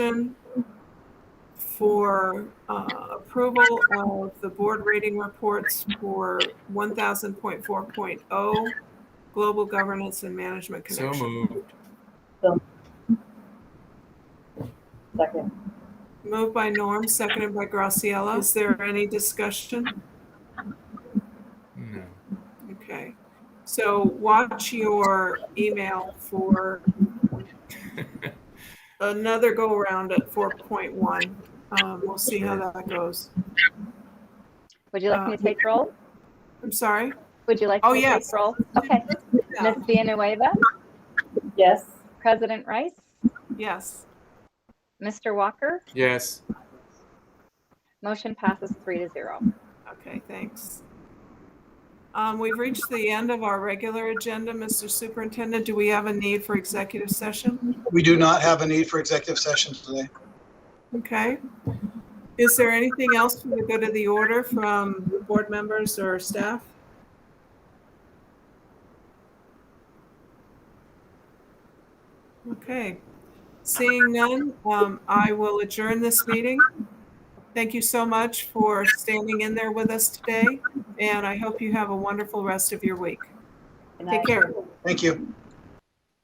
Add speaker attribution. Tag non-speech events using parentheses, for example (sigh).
Speaker 1: motion for uh, approval of the board rating reports for 1000.4.0, oh, Global Governance and Management
Speaker 2: So
Speaker 1: Connection.
Speaker 2: moved.
Speaker 3: Second.
Speaker 1: Moved by Norm, seconded by Graciela. Is there any discussion?
Speaker 2: No.
Speaker 1: Okay, so watch your email
Speaker 2: (laughs)
Speaker 1: for another go-around at four point one. Um, we'll see how that goes.
Speaker 4: Would you like me
Speaker 1: Uh,
Speaker 4: to take roll?
Speaker 1: I'm sorry?
Speaker 4: Would you like
Speaker 1: oh,
Speaker 4: me to
Speaker 1: yes.
Speaker 4: take roll? Okay.
Speaker 1: Yeah,
Speaker 4: Ms. Villanueva,
Speaker 3: Yes.
Speaker 4: President Rice,
Speaker 1: Yes,
Speaker 4: Mr. Walker,
Speaker 2: Yes.
Speaker 4: motion passes three to zero.
Speaker 1: okay, thanks. Um, we've reached the end of our regular agenda. Mr. Superintendent, do we have a need for executive session?
Speaker 5: We do not have a need for executive session today.
Speaker 1: Okay. Is there anything else for the good of the order from board members or staff? Okay, seeing none, um, I will adjourn this meeting. Thank you so much for standing in there with us today, and I hope you have a wonderful rest of your week. Take
Speaker 3: Good night.
Speaker 1: care.
Speaker 5: Thank you.